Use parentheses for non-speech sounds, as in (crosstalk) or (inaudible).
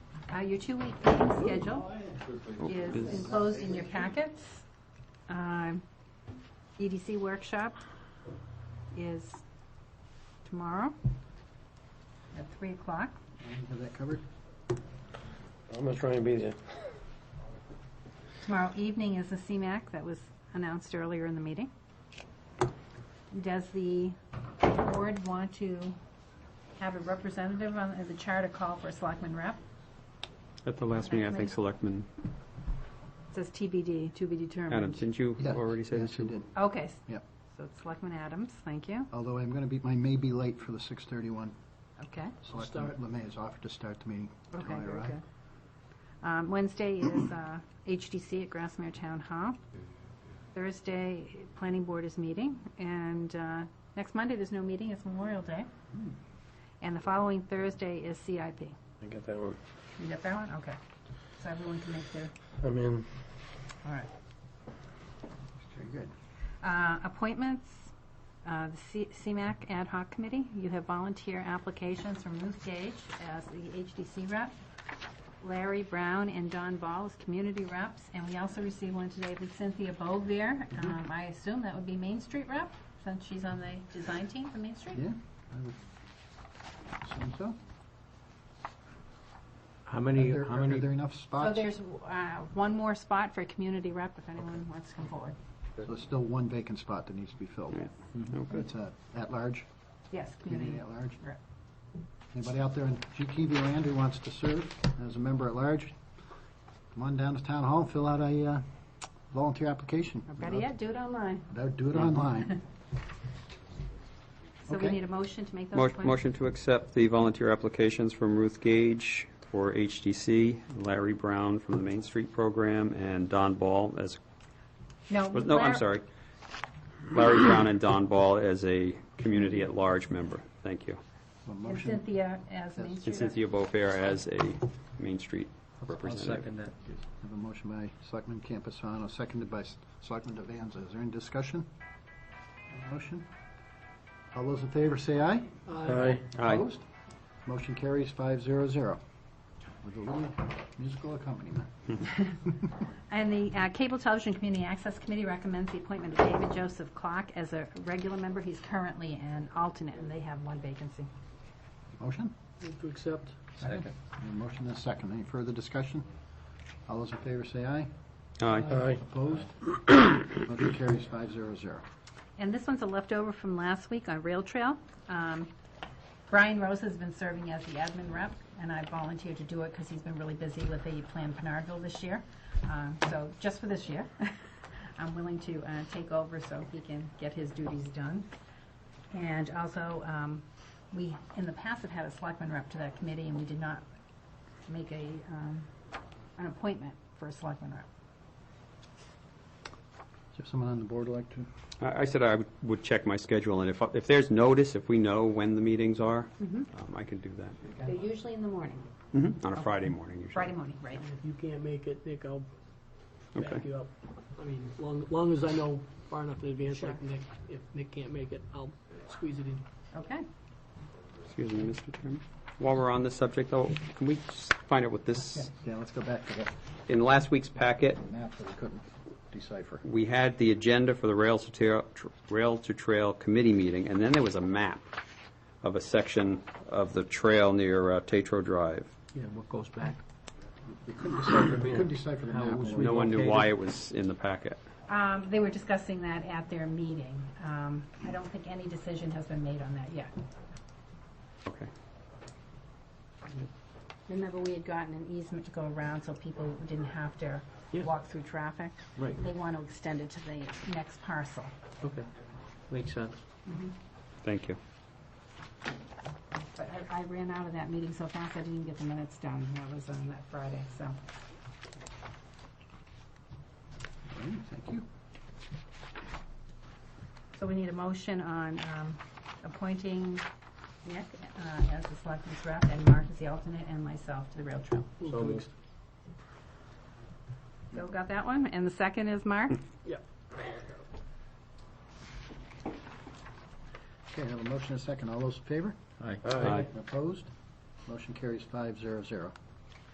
Uh, Your two-week meeting schedule is enclosed in your packets. Um, EDC workshop is tomorrow at 3 o'clock. Have that covered? I'm gonna try and be there. Tomorrow evening is the CMAC that was announced earlier in the meeting. Does the board want to have a representative on, the charter call for a selectman rep? At the last meeting, I think Selectman It Says TBD, to be determined. Adams, didn't you Yeah, already say yes, that? you did. Okay. Yep. So it's Selectman Adams, thank you. Although I'm going to be, I may be late for the 6:31. Okay, Selectman Lemay has offered to start the meeting. okay, till I very arrive. good. Um, Wednesday is uh, HDC at Grassmere Town Hall. Thursday, Planning Board is meeting, and uh, next Monday, there's no meeting, it's Memorial Day. And the following Thursday is CIP. I get that one. You got that one? Okay. So everyone can make their, I mean, all right. Very good. Uh, Appointments, uh, the C- CMAC Ad Hoc Committee, you have volunteer applications from Ruth Gage as the HDC rep, Larry Brown and Don Ball as community reps, and we also received one today with Cynthia Bogue there. Um, I assume that would be Main Street rep, since she's on the design team for Main Street? Yeah? I would assume so. How many, Are there- how Are many, there enough So spots? Oh, there's uh, one more spot for community rep if anyone wants to come forward. So There's still one vacant spot that needs to be filled. Yeah. Mm-hmm. okay. It's uh, a at-large, Yes, community community. at-large. Right. Anybody out there in GKV land who wants to serve as a member at-large, come on down to Town Hall, fill out a uh, volunteer application. Or Better yet, do it online. They'll Do it online. So we Okay. need a motion to make those Mo- appointments. Motion to accept the volunteer applications from Ruth Gage for HDC, Larry Brown from the Main Street Program, and Don Ball as, No. no, I'm Lar- sorry. Larry Brown and Don Ball as a community at large member. Thank you. A And motion. Cynthia as Main Yes. Street. And Cynthia Beaufair as a Main Street representative. that. Have a motion by Selectman Campusano, seconded by S- Selectman Devanza. Is there any discussion? on the Motion? All those in favor say aye. I, Aye. Opposed? Motion carries five zero zero. With a little musical accompaniment. And the uh, Cable Television Community Access Committee recommends the appointment of David Joseph Clock as a regular member. He's currently an alternate, and they have one vacancy. Motion? Move to accept. Second. A motion and a second. Any further discussion? All those in favor say aye. Aye. I, Opposed? Motion carries five zero zero. And this one's a leftover from last week on Rail Trail. Um, Brian Rose has been serving as the admin rep, and I volunteered to do it because he's been really busy with the Plan Pinardville this year. Um, So just for this year, (laughs) I'm willing to uh, take over so he can get his duties done. And also, um, we, in the past, have had a selectman rep to that committee, and we did not make a, um, an appointment for a selectman rep. Is there someone on the board like to? I I said I would- would check my schedule, and if, if there's notice, if we know when the meetings are, Mm-hmm. um, I can do that. Mm-hmm. They're usually in the morning, On a Friday morning, usually. Friday morning, right? If you can't make it, Nick, I'll back Okay. you up. I mean, long, long as I know far enough in advance, Sure. like Nick, if Nick can't make it, I'll squeeze it in. Okay. Excuse me, Mr. Chairman. While we're on this subject, though, can we just find out what this, Yeah, let's go back to the in last week's packet, map that we couldn't decipher. we had the agenda for the Rail to Trail, tr- Rail to Trail Committee meeting, and then there was a map of a section of the trail near uh, Tetro Drive. Yeah, what goes back? We couldn't decipher, we couldn't decipher the map. was we No one knew why it was in the packet. Um, They were discussing that at their meeting. Um, I don't think any decision has been made on that yet. Okay. Remember, we had gotten an easement to go around so people didn't have to Yeah. walk through traffic. Right. They want to extend it to the next parcel. Okay, makes sense. Thank you. But I, I ran out of that meeting so fast, I didn't even get the minutes done. That was on that Friday, so. Okay, Thank you. So we need a motion on um, appointing Nick uh, as the selectman's rep and Mark as the alternate and myself to the rail trail. Move to ex- Bill got that one, and the second is Mark? Yeah. Okay, I have a motion and a second. All those in favor? Aye. Opposed? Motion carries five zero zero.